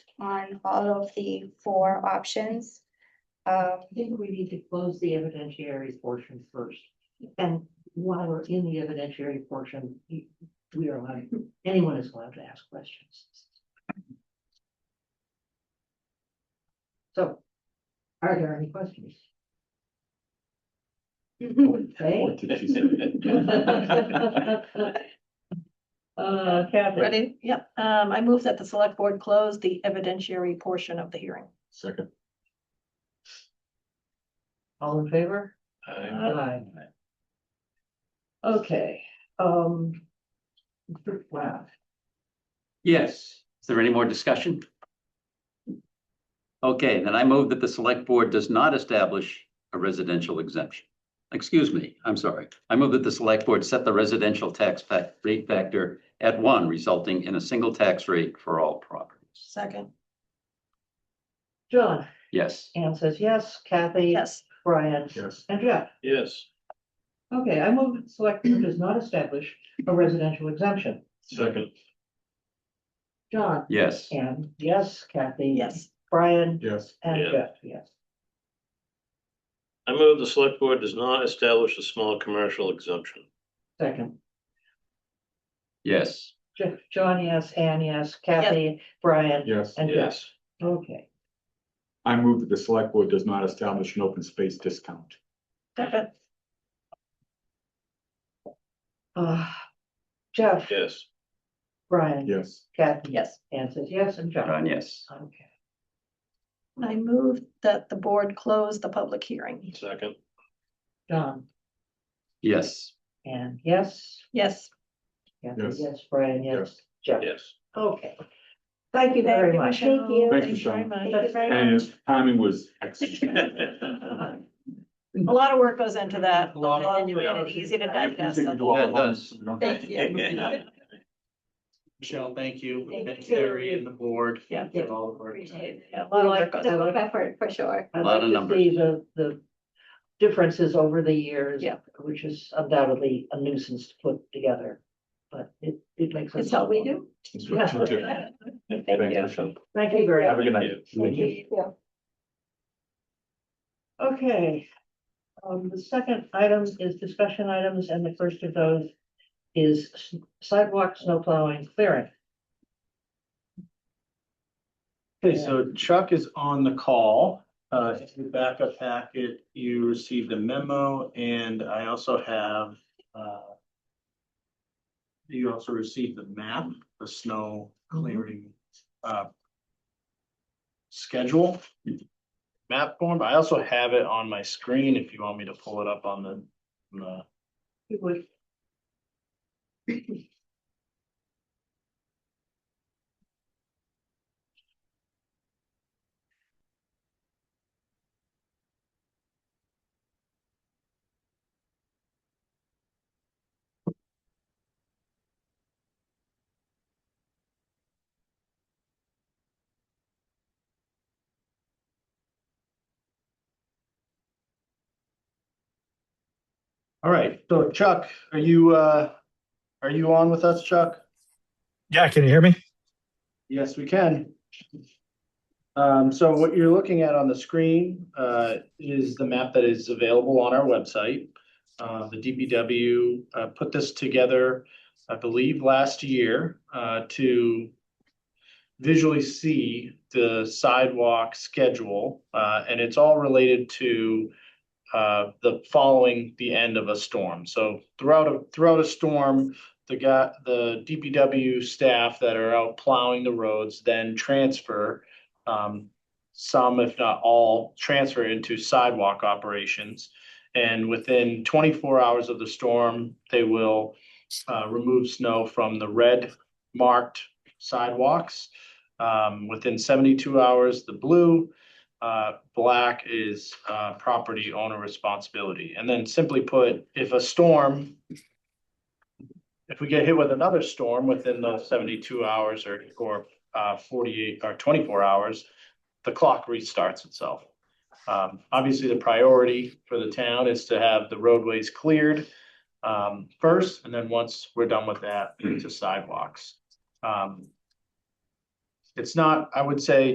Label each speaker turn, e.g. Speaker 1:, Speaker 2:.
Speaker 1: on all of the four options. Um,
Speaker 2: I think we need to close the evidentiary portion first. And while we're in the evidentiary portion, you- we are allowed, anyone is allowed to ask questions. So, are there any questions?
Speaker 3: What did she say?
Speaker 2: Uh, Kathy,
Speaker 4: Ready? Yep. Um, I move that the select board close the evidentiary portion of the hearing.
Speaker 3: Second.
Speaker 2: all in favor?
Speaker 3: I-
Speaker 2: Aye. Okay, um. Wow,
Speaker 5: Yes. Is there any more discussion? Okay, then I move that the select board does not establish a residential exemption. Excuse me, I'm sorry. I move that the select board set the residential tax fac- rate factor at one, resulting in a single tax rate for all properties.
Speaker 4: Second.
Speaker 2: John,
Speaker 5: Yes.
Speaker 2: Anne says yes, Kathy.
Speaker 4: Yes.
Speaker 2: Brian.
Speaker 3: Yes.
Speaker 2: And Jeff.
Speaker 3: Yes.
Speaker 2: Okay, I move that the select board does not establish a residential exemption.
Speaker 3: Second.
Speaker 2: John.
Speaker 5: Yes.
Speaker 2: And yes, Kathy.
Speaker 4: Yes.
Speaker 2: Brian.
Speaker 3: Yes.
Speaker 2: And
Speaker 6: Yeah.
Speaker 2: Jeff, yes.
Speaker 6: I move the select board does not establish a small commercial exemption.
Speaker 2: Second,
Speaker 5: Yes.
Speaker 2: Jo- John, yes, Anne, yes, Kathy, Brian.
Speaker 3: Yes.
Speaker 2: And Jeff. Okay,
Speaker 3: I move that the select board does not establish an open space discount.
Speaker 4: Second.
Speaker 2: uh, Jeff,
Speaker 6: Yes,
Speaker 2: Brian,
Speaker 3: Yes.
Speaker 2: Kathy.
Speaker 4: Yes.
Speaker 2: Anne says yes, and John.
Speaker 5: John, yes.
Speaker 2: Okay,
Speaker 4: I move that the board close the public hearing.
Speaker 6: second,
Speaker 2: John,
Speaker 5: Yes.
Speaker 2: and yes,
Speaker 4: Yes.
Speaker 2: Kathy,
Speaker 3: Yes.
Speaker 2: yes, Brian, yes, Jeff.
Speaker 6: yes.
Speaker 2: Okay. Thank you very much.
Speaker 1: Thank you.
Speaker 3: Thank you, Sean. And his timing was excellent.
Speaker 4: A lot of work goes into that.
Speaker 3: A lot of-
Speaker 4: And you made it easy to
Speaker 3: I appreciate
Speaker 4: digest.
Speaker 3: you do all
Speaker 5: Yeah, it
Speaker 3: that.
Speaker 5: does.
Speaker 3: We don't-
Speaker 4: Thank you.
Speaker 7: Michelle, thank you,
Speaker 1: Thank
Speaker 7: and
Speaker 1: you.
Speaker 7: Terry and the board.
Speaker 4: Yeah.
Speaker 7: For all the work.
Speaker 4: Yeah, A lot of work goes
Speaker 2: that.
Speaker 4: into
Speaker 1: Double effort, for sure.
Speaker 2: I'd
Speaker 5: Lot
Speaker 2: like
Speaker 5: of
Speaker 2: to
Speaker 5: numbers.
Speaker 2: see the, the differences over the years.
Speaker 4: Yeah.
Speaker 2: Which is undoubtedly a nuisance to put together, but it, it makes.
Speaker 4: It's
Speaker 2: us-
Speaker 4: what we do.
Speaker 3: That's what you do.
Speaker 4: Thank you.
Speaker 2: Thank you very
Speaker 3: Have
Speaker 2: much.
Speaker 3: a good night.
Speaker 2: Thank you.
Speaker 1: Yeah.
Speaker 2: Okay. Um, the second item is discussion items, and the first of those is s- sidewalk, snow plowing, clearing.
Speaker 7: Okay, so Chuck is on the call. Uh, if you back up packet, you received a memo and I also have, uh. You also received the map, the snow clearing, uh. Schedule. Map form. I also have it on my screen if you want me to pull it up on the, on the
Speaker 2: You would.
Speaker 7: All right, so Chuck, are you, uh, are you on with us, Chuck?
Speaker 8: Yeah, can you hear me?
Speaker 7: Yes, we can. Um, so what you're looking at on the screen, uh, is the map that is available on our website. Uh, the DPW, uh, put this together, I believe, last year, uh, to visually see the sidewalk schedule, uh, and it's all related to uh, the following the end of a storm. So throughout a, throughout a storm, the guy, the DPW staff that are out plowing the roads then transfer. Um, some, if not all, transfer into sidewalk operations. And within twenty-four hours of the storm, they will uh, remove snow from the red marked sidewalks. Um, within seventy-two hours, the blue, uh, black is uh, property owner responsibility. And then simply put, if a storm if we get hit with another storm within the seventy-two hours or, or, uh, forty-eight or twenty-four hours, the clock restarts itself. Um, obviously, the priority for the town is to have the roadways cleared, um, first, and then once we're done with that, into sidewalks. Um, It's not, I would say,